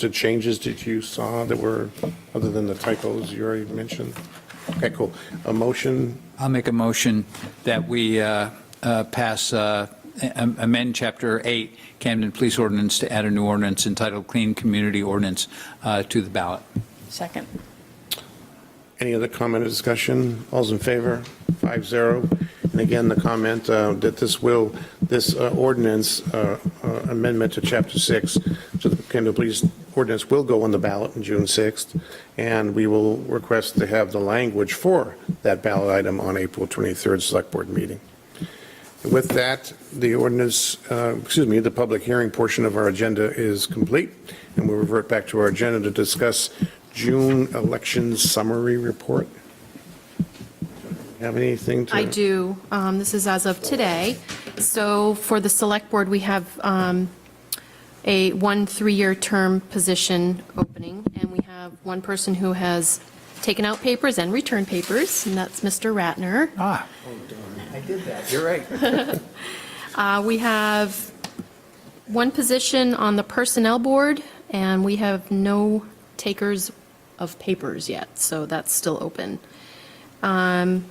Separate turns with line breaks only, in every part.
the changes that you saw that were, other than the typos you already mentioned? Okay, cool. A motion,
I'll make a motion that we uh, uh, pass, uh, am- amend Chapter 8 Camden Police Ordinance to add a new ordinance entitled Clean Community Ordinance uh, to the ballot.
Second.
any other comment or discussion? All's in favor? Five zero. And again, the comment uh, that this will, this uh, ordinance uh, uh, amendment to Chapter 6 to the Kendall Police ordinance will go on the ballot on June 6th, and we will request to have the language for that ballot item on April 23rd Select Board meeting. With that, the ordinance, uh, excuse me, the public hearing portion of our agenda is complete, and we'll revert back to our agenda to discuss June election summary report. Have anything to?
I do. Um, This is as of today. So for the Select Board, we have um, a one three-year term position opening, and we have one person who has taken out papers and returned papers, and that's Mr. Ratner.
Ah. I did that, you're right.
Uh, We have one position on the Personnel Board, and we have no takers of papers yet, so that's still open. Um,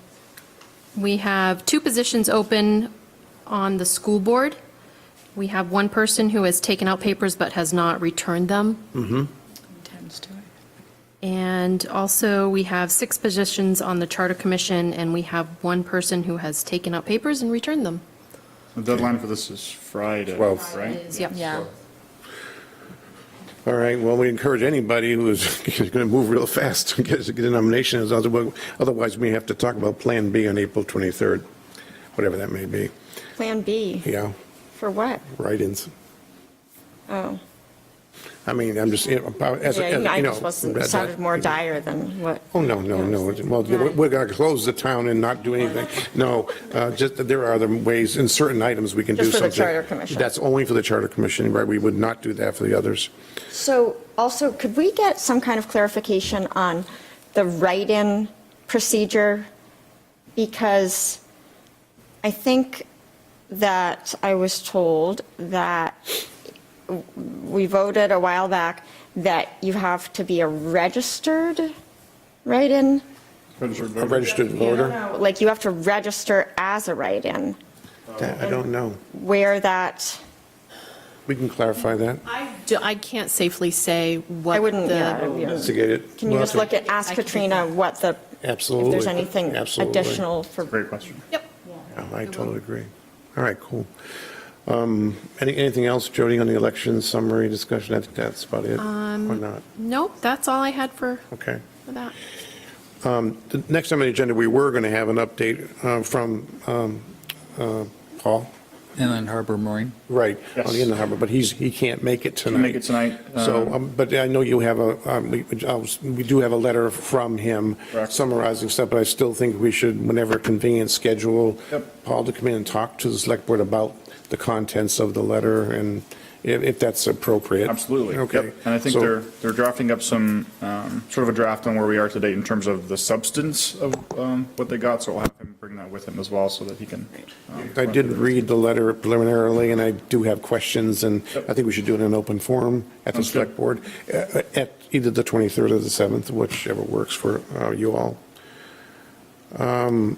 We have two positions open on the School Board. We have one person who has taken out papers but has not returned them.
Tends to it.
And also, we have six positions on the Charter Commission, and we have one person who has taken out papers and returned them.
The deadline for this is Friday,
Twelve.
right?
Yep.
Yeah.
All right, well, we encourage anybody who is going to move real fast to get a nomination, as otherwise otherwise we have to talk about Plan B on April 23rd, whatever that may be.
Plan B,
Yeah,
for what?
write-ins.
Oh,
I mean, I'm just, you know, about- as, as, you know.
yeah, I just wasn't,
as I-
sounded more dire than what.
Oh, no, no, no. Well, we're- we're going to close the town and not do anything. No, uh, just, that there are other ways, in certain items, we can do
Just for
something.
the Charter Commission.
That's only for the Charter Commission, right? We would not do that for the others.
So also, could we get some kind of clarification on the write-in procedure? Because I think that I was told that we voted a while back that you have to be a registered write-in.
Registered
A
voter.
registered voter?
Like you have to register as a write-in,
That- I don't know.
where that,
We can clarify that,
Do- I can't safely say what
I wouldn't,
the-
yeah. yeah.
investigate it.
Can you just look at, ask Katrina what the, if
Absolutely.
there's anything
Absolutely.
additional for,
Great question.
Yep.
Yeah, I totally agree. All right, cool. Um, Any Anything else, Jody, on the election summary discussion? I think that's about it,
Um,
or not?
Nope, that's all I had for
Okay.
for that.
Um, The next on the agenda, we were going to have an update uh, from um, uh, Paul,
Inland Harbor Marine.
right, on the
Yes.
Inland Harbor, but he's, he can't make it tonight.
Can make it tonight.
So,
um,
um, but I know you have a, um, we I was- we do have a letter from him
Correct.
summarizing stuff, but I still think we should, whenever convenient, schedule
Yep.
Paul to come in and talk to the select board about the contents of the letter and if if that's appropriate.
Absolutely. yep.
Okay.
And I think
So-
they're, they're drafting up some, um, sort of a draft on where we are today in terms of the substance of um, what they got, so I'll have him bring that with him as well, so that he can. um,
I did read the letter preliminarily, and I do have questions, and I think we should do it in an open forum at the
Sounds good.
select board, uh, at either the 23rd or the 7th, whichever works for uh, you all. Um,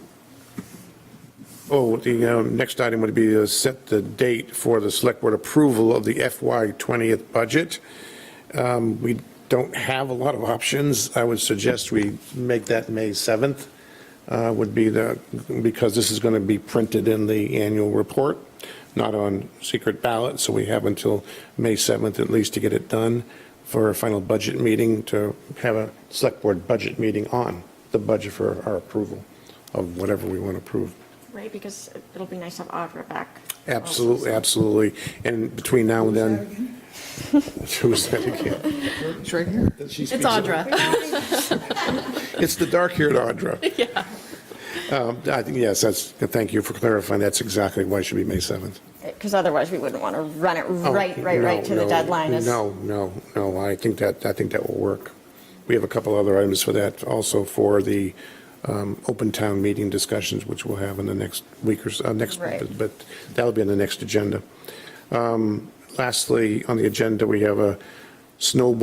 Oh, the um, next item would be to set the date for the select board approval of the FY 20th budget. Um, We don't have a lot of options. I would suggest we make that May 7th uh, would be the, because this is going to be printed in the annual report, not on secret ballot, so we have until May 7th at least to get it done for our final budget meeting, to have a select board budget meeting on the budget for our approval of whatever we want to approve.
right, because it'll be nice to have Audra back.
Absolutely, absolutely. And between now and then. Who's that again?
It's right here.
It's Audra.
It's the dark-haired Audra. Yeah. I think, yes, that's, thank you for clarifying. That's exactly why it should be May 7th.
Because otherwise, we wouldn't want to run it
Oh,
right, right, right to
no,
the
no,
deadline. is-
No, no, no, I think that, I think that will work. We have a couple other items for that, also for the um, open town meeting discussions, which we'll have in the next week or, so- uh, next,
Right.
but- but that'll be on the next agenda. Um, Lastly, on the agenda, we have a snowball